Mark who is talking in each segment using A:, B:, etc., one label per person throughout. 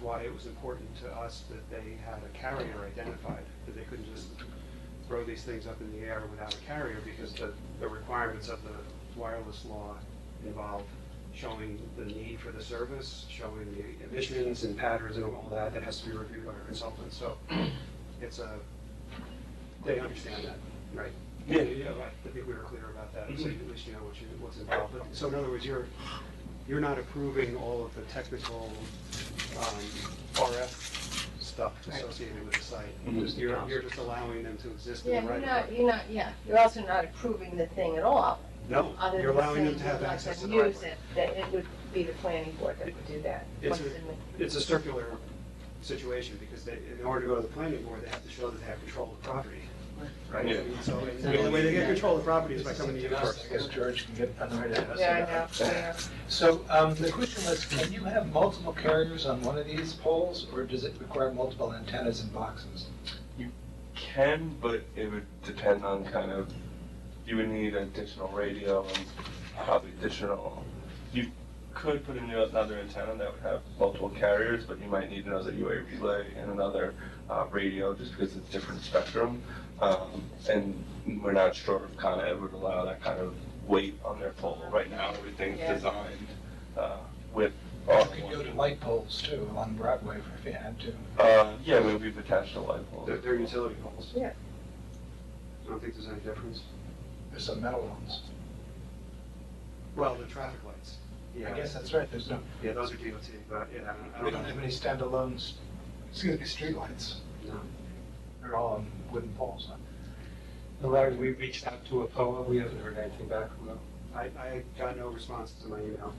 A: why it was important to us that they had a carrier identified, that they couldn't just throw these things up in the air without a carrier, because the, the requirements of the wireless law involve showing the need for the service, showing the emissions and patterns and all that, that has to be reviewed by our consultant, so it's a, they understand that, right?
B: Yeah.
A: right. I think we were clear about that, so you- at least you know what you, what's involved. But- So in other words, you're, you're not approving all of the technical um, RF stuff associated with the site.
B: Mhm.
A: Just- You're, you're just allowing them to exist
C: Yeah,
A: in the
C: you're
A: right
C: not,
A: of way.
C: you're not, yeah, you're also not approving the thing at all.
A: No,
C: other
A: you're
C: than
A: allowing them
C: saying
A: to have
C: you'd like
A: access to
C: them
A: the right of
C: use
A: way.
C: it, That it would be the planning board that would do that.
A: It's
C: once
A: a-
C: in the-
A: It's a circular situation, because they, in order to go to the planning board, they have to show that they have control of the property, right?
B: Yeah.
A: So, and the only way they get control of the property is by coming to you first.
D: I guess George can get annoyed at us.
C: Yeah, I know, I know.
D: So um, the question was, can you have multiple carriers on one of these poles, or does it require multiple antennas and boxes?
B: Can, but it would depend on kind of, you would need additional radio and probably additional, you could put in another antenna that would have multiple carriers, but you might need another UA relay and another uh, radio just because it's different spectrum. Um, And we're not sure if Con Ed would allow that kind of weight on their pole. Right now, everything's
C: Yeah.
B: designed uh, with. all
A: Oh.
D: Or could you go
B: one-
D: to light poles too, on Broadway if you had to?
B: Uh, Yeah, we- we've attached a light pole.
A: They're, they're utility poles.
C: Yeah.
A: I don't think there's any difference.
D: There's some metal ones.
A: Well, the traffic lights.
D: I guess that's right, there's no,
A: Yeah, those are DOT, but yeah, I
D: we
A: don't, I
D: don't
A: don't
D: have
A: know.
D: any standalones, excuse me, streetlights.
A: No.
D: They're all on wooden poles.
E: Larry, we reached out to APOA, we haven't heard anything back from them.
A: I, I got no response to my email.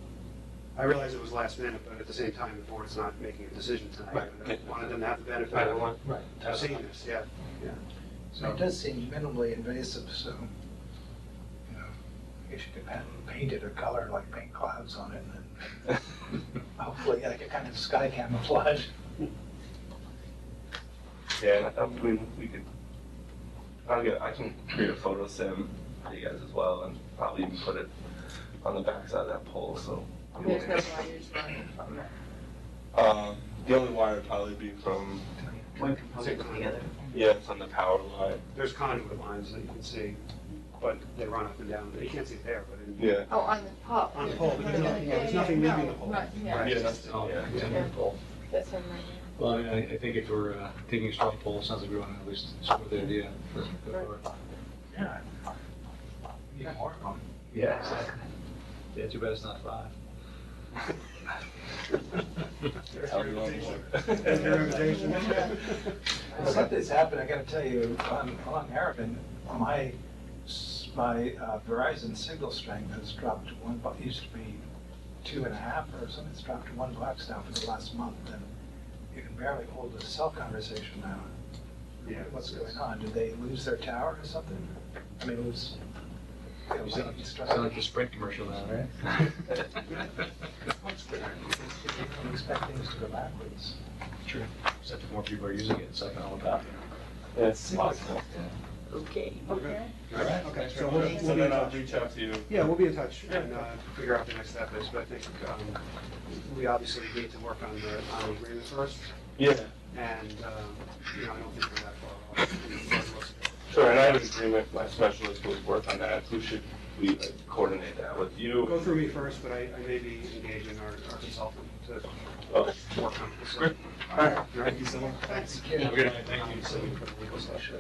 A: I realize it was last minute, but at the same time, the board's not making a decision tonight.
E: Right.
A: I Wanted them to have the benefit
E: I don't
A: of
E: want,
D: Right.
A: seeing this, yeah.
D: So it does seem minimally invasive, so, you know, I guess you could pa- paint it a color, like paint clouds on it, and then hopefully like a kind of sky camouflage.
B: Yeah, I mean, we could, I'll get, I can create a photo sim for you guys as well and probably even put it on the backside of that pole, so.
C: There's no wires running from that.
B: Uh, the only wire would probably be from,
F: one component to the other.
B: yeah, from the power line.
A: There's conduit lines that you can see, but they run up and down. You can't see it there, but in.
B: Yeah.
C: Oh, on the pole.
A: On the pole, but there's nothing- there's nothing
C: Yeah, yeah,
A: leaving
C: no,
A: the pole.
C: Right, yeah,
B: Yeah, that's, yeah.
C: yeah, that's on my,
G: Oh, Well, I, I- I think if we're uh, taking a straw poll, it sounds like we want to at least support the idea. Let's go for it.
D: Yeah. Need more of them.
G: Yeah, exactly. Yeah, too bad it's not five.
A: There's
B: Tell
A: your
B: me one
A: invitation.
B: more.
A: There's your invitation.
D: Well, Something's happened, I gotta tell you, on, on Harbin, my, s- my uh, Verizon signal strength has dropped to one, bu- it used to be two and a half or something, it's dropped to one box now for the last month, and you can barely hold a cell conversation now.
A: Yeah.
D: What's going on? Did they lose their tower or something? I mean, lose. you know,
G: You sound
D: lightning
G: you
D: strike.
G: sound like the Sprint commercial now, right?
D: You Expect things to go backwards.
G: True. Except if more people are using it, it's like all about.
B: Yeah, it's possible.
F: Okay.
A: Okay.
B: All right.
A: Okay, so we'll,
B: So
A: we'll be in
B: then I'll
A: touch.
B: reach out to you.
A: Yeah, we'll be in touch and uh, figure out the next step is, but I think um, we obviously need to work on the, on the agreement first.
B: Yeah,
A: And, um, you know, I don't think we're that far off.
B: sure, and I have an agreement, my specialist would work on that. Who should we like, coordinate that with
A: We'll
B: you?
A: Go through me first, but I, I may be engaging our our consultant to
B: Okay.
A: work on this.
B: Great. All right, thank you so much.
A: Thanks.
B: Have a good night, thank you. So we put legal session.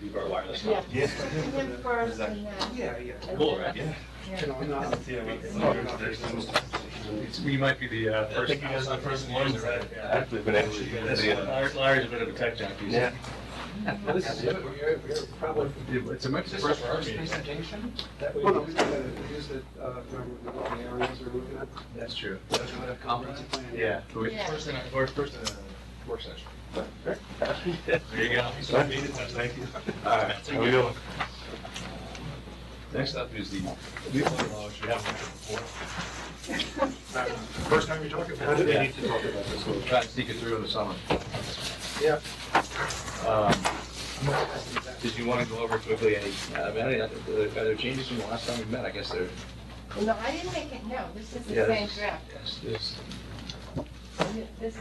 B: Leave our wireless. on.
C: yeah. Him first and then.
A: Yeah, yeah.
B: Cool, right? Yeah.
A: You know, I'm not.
B: See you later.
A: Sorry about this.
G: We might be the uh, first.
B: think you guys are the first ones that actually been able to get it. uh,
G: Larry- Larry's a bit of a tech junkie. so-
B: Yeah.
D: Well, this is it. We're, we're probably.
G: It's a much.
D: Is this the first presentation? That we-
A: Well, no, we got to use the, uh, remember the areas we're looking at.
G: That's true.
D: That we would have
A: Comprehensive
D: comprehensive
A: plan.
G: Yeah. but we-
C: Yeah.
G: First in, a- or first in a work session. There you go.
B: Thank you. All right, how we doing?
G: Next up is the nuclear law, which we haven't heard before.
D: First time you're talking about
G: Yeah.
D: it.
G: need to talk about this. We'll try to sneak it through in the summer.
D: Yeah.
G: Um, Did you want to go over quickly any, uh, any other- are there changes from the last time we met? I guess there.
C: No, I didn't make it, no, this is
G: yeah,
C: the same
G: there's-
C: draft.
G: Yes, there's
C: This